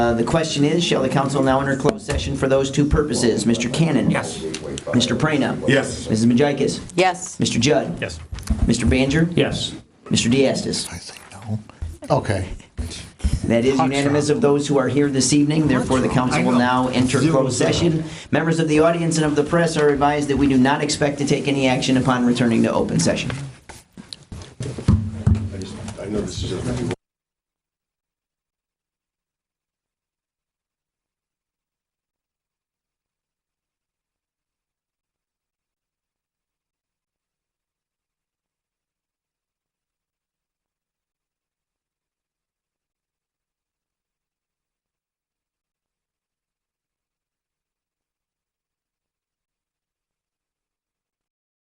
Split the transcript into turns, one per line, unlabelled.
Uh, The question is, shall the council now enter closed session for those two purposes? Mr. Cannon?
Yes.
Mr. Prano?
Yes.
Mrs. Majikis?
Yes.
Mr. Judd?
Yes.
Mr. Baner?
Yes.
Mr. Diastis?
I say no. Okay.
That is unanimous of those who are here this evening, therefore the council will now enter closed session. Members of the audience and of the press are advised that we do not expect to take any action upon returning to open session.
I know this is a